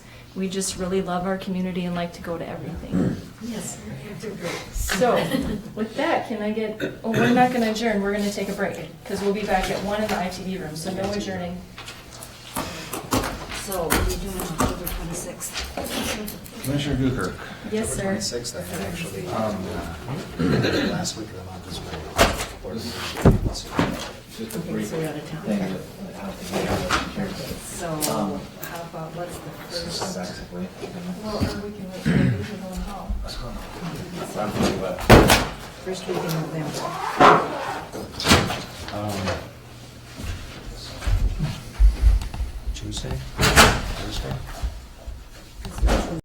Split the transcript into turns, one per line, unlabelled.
We just really love our community and like to go to everything.
Yes,
So, with that, can I get, oh, we're not gonna adjourn, we're gonna take a break, because we'll be back at one in the ITV room, so no adjourning.
so what are you doing October twenty-sixth?
Commissioner Dukirk,
Yes, sir.
Sixth, I had actually, um, last week of the month is my board meeting.
just a
Okay,
brief
so
thing
we're out of town.
that I don't think I have to share.
So how about, what's
This is
the first?
basically,
Well, or we can wait till we leave and go home.
roughly what,
First week in November.
um,
Tuesday, Thursday?